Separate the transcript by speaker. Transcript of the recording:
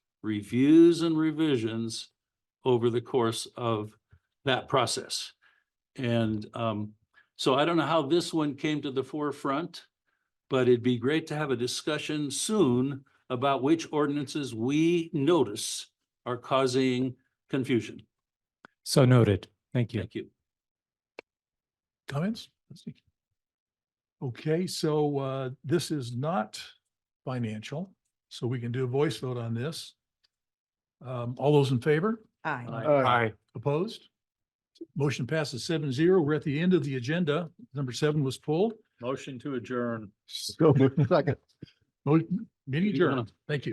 Speaker 1: reviews and revisions over the course of that process. And um, so I don't know how this one came to the forefront, but it'd be great to have a discussion soon about which ordinances we notice are causing confusion.
Speaker 2: So noted. Thank you.
Speaker 1: Thank you.
Speaker 3: Comments? Let's see. Okay, so uh, this is not financial, so we can do a voice vote on this. Um, all those in favor?
Speaker 4: Aye.
Speaker 2: Aye.
Speaker 3: Opposed? Motion passes seven zero. We're at the end of the agenda. Number seven was pulled.
Speaker 1: Motion to adjourn.
Speaker 3: So, second. Meeting adjourned. Thank you.